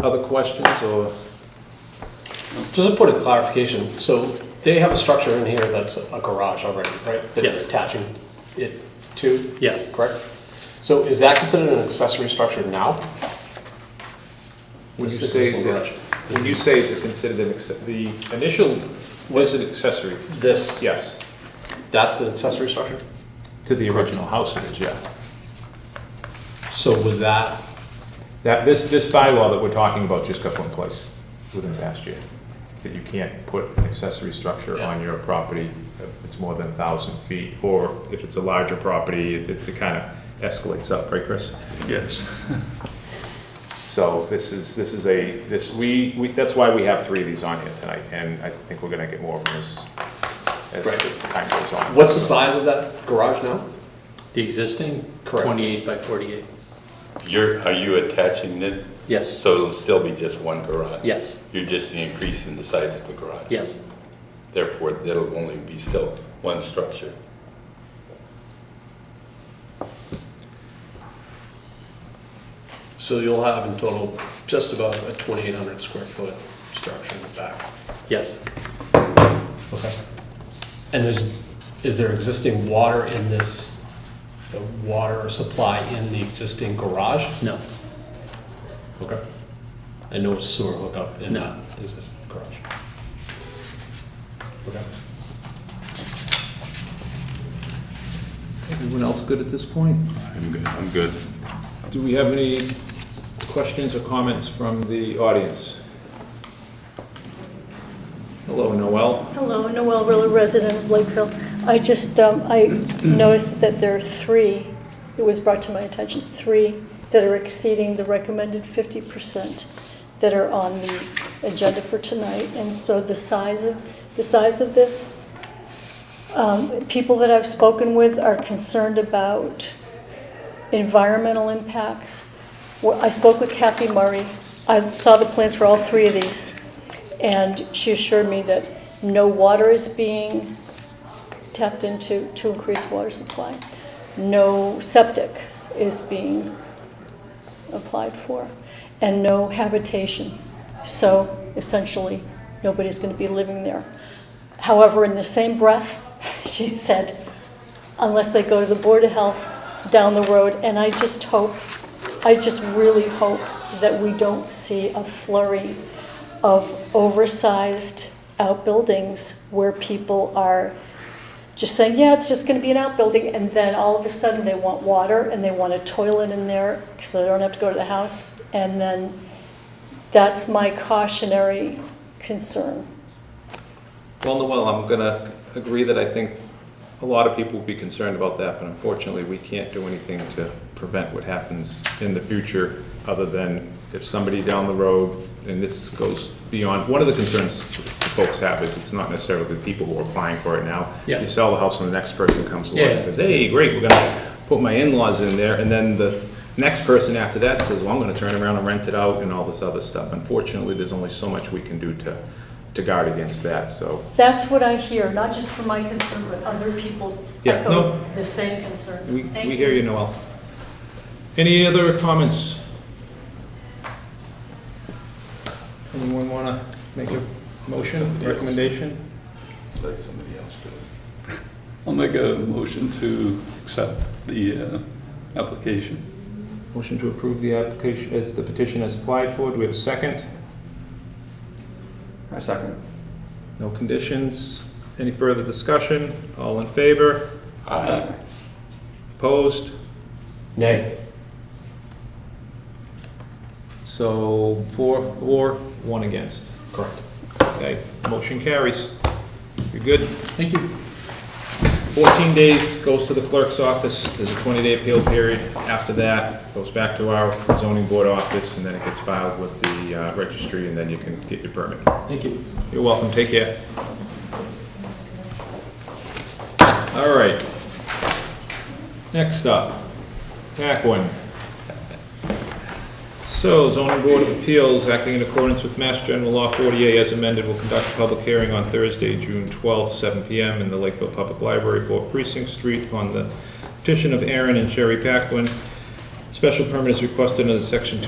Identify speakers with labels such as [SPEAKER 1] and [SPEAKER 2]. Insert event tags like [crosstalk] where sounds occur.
[SPEAKER 1] Other questions or?
[SPEAKER 2] Just to put a clarification, so they have a structure in here that's a garage already, right? That
[SPEAKER 1] Yes.
[SPEAKER 2] they're attaching it to,
[SPEAKER 1] Yes.
[SPEAKER 2] correct? So is that considered an accessory structure now?
[SPEAKER 3] When you
[SPEAKER 2] This
[SPEAKER 3] say,
[SPEAKER 2] existing
[SPEAKER 3] is
[SPEAKER 2] garage.
[SPEAKER 3] it- when you say is it considered an, acce- the initial was an accessory,
[SPEAKER 2] This,
[SPEAKER 3] yes.
[SPEAKER 2] that's an accessory structure?
[SPEAKER 3] To the original house, it is, yeah.
[SPEAKER 2] So was that,
[SPEAKER 3] That, this, this bylaw that we're talking about just got put in place within the past year. That you can't put an accessory structure
[SPEAKER 2] Yeah.
[SPEAKER 3] on your property if it's more than a thousand feet, or if it's a larger property, it, it kind of escalates up, right, Chris? Yes. [laughs] So this is, this is a, this, we, we, that's why we have three of these on here tonight, and I think we're gonna get more of them as,
[SPEAKER 2] Right.
[SPEAKER 3] as time goes on.
[SPEAKER 2] what's the size of that garage now?
[SPEAKER 4] The existing?
[SPEAKER 2] Correct.
[SPEAKER 4] 28 by 48.
[SPEAKER 5] You're, are you attaching it?
[SPEAKER 4] Yes,
[SPEAKER 5] So it'll still be just one garage?
[SPEAKER 4] Yes.
[SPEAKER 5] You're just increasing the size of the garage?
[SPEAKER 4] yes,
[SPEAKER 5] Therefore, there'll only be still one structure.
[SPEAKER 2] So you'll have in total just about a 2,800 square foot structure in the back.
[SPEAKER 4] yes.
[SPEAKER 2] Okay. And there's, is there existing water in this, the water supply in the existing garage?
[SPEAKER 4] No,
[SPEAKER 2] Okay. And no sewer hookup in
[SPEAKER 4] No.
[SPEAKER 2] that existing garage? Okay.
[SPEAKER 3] Everyone else good at this point?
[SPEAKER 5] I'm good, I'm good.
[SPEAKER 3] Do we have any questions or comments from the audience? Hello, Noel.
[SPEAKER 6] Hello, Noel Rilla, resident of Lakeville. I just, um, I noticed that there are three, it was brought to my attention, three that are exceeding the recommended 50% that are on the agenda for tonight. And so the size of, the size of this, um, people that I've spoken with are concerned about environmental impacts. Well, I spoke with Kathy Murray. I saw the plans for all three of these, and she assured me that no water is being tapped into to increase water supply. No septic is being applied for, and no habitation. So essentially, nobody's going to be living there. However, in the same breath, [laughs] she said, unless they go to the Board of Health down the road. And I just hope, I just really hope that we don't see a flurry of oversized outbuildings where people are just saying, yeah, it's just gonna be an outbuilding, and then all of a sudden they want water and they want a toilet in there, so they don't have to go to the house. And then that's my cautionary concern.
[SPEAKER 3] Well, Noel, I'm gonna agree that I think a lot of people will be concerned about that, but unfortunately, we can't do anything to prevent what happens in the future, other than if somebody down the road, and this goes beyond, one of the concerns folks have is it's not necessarily the people who are applying for it now.
[SPEAKER 4] Yeah.
[SPEAKER 3] You sell the house and the next person comes along and
[SPEAKER 4] Yeah.
[SPEAKER 3] says, hey, great, we're gonna put my in-laws in there, and then the next person after that says, well, I'm gonna turn around and rent it out and all this other stuff. Unfortunately, there's only so much we can do to, to guard against that, so.
[SPEAKER 6] That's what I hear, not just from my concern, but other people
[SPEAKER 3] Yeah, no.
[SPEAKER 6] echo the same concerns.
[SPEAKER 3] We,
[SPEAKER 6] Thank
[SPEAKER 3] we hear you, Noel. Any other comments? Anyone want to make a motion,
[SPEAKER 5] Somebody else.
[SPEAKER 3] recommendation?
[SPEAKER 5] Let somebody else do it.
[SPEAKER 7] I'll make a motion to accept the uh, application.
[SPEAKER 3] Motion to approve the application, as the petition as applied for. Do we have a second?
[SPEAKER 8] I second.
[SPEAKER 3] No conditions? Any further discussion? All in favor?
[SPEAKER 5] Aye.
[SPEAKER 3] Opposed?
[SPEAKER 2] Nay.
[SPEAKER 3] So four, four, one against. Correct. Okay, motion carries. You're good.
[SPEAKER 4] Thank you.
[SPEAKER 3] 14 days goes to the clerk's office, there's a 20-day appeal period. After that, goes back to our zoning board office, and then it gets filed with the uh, registry, and then you can get your permit. Thank you. You're welcome, take care. All right. Next up, back one. So zoning board of appeals, acting in accordance with Mass General Law 48 as amended, will conduct a public hearing on Thursday, June 12th, 7 PM in the Lakeville Public Library, 4 Precinct Street, on the petition of Aaron and Sherry Paquin. Special permit is requested under section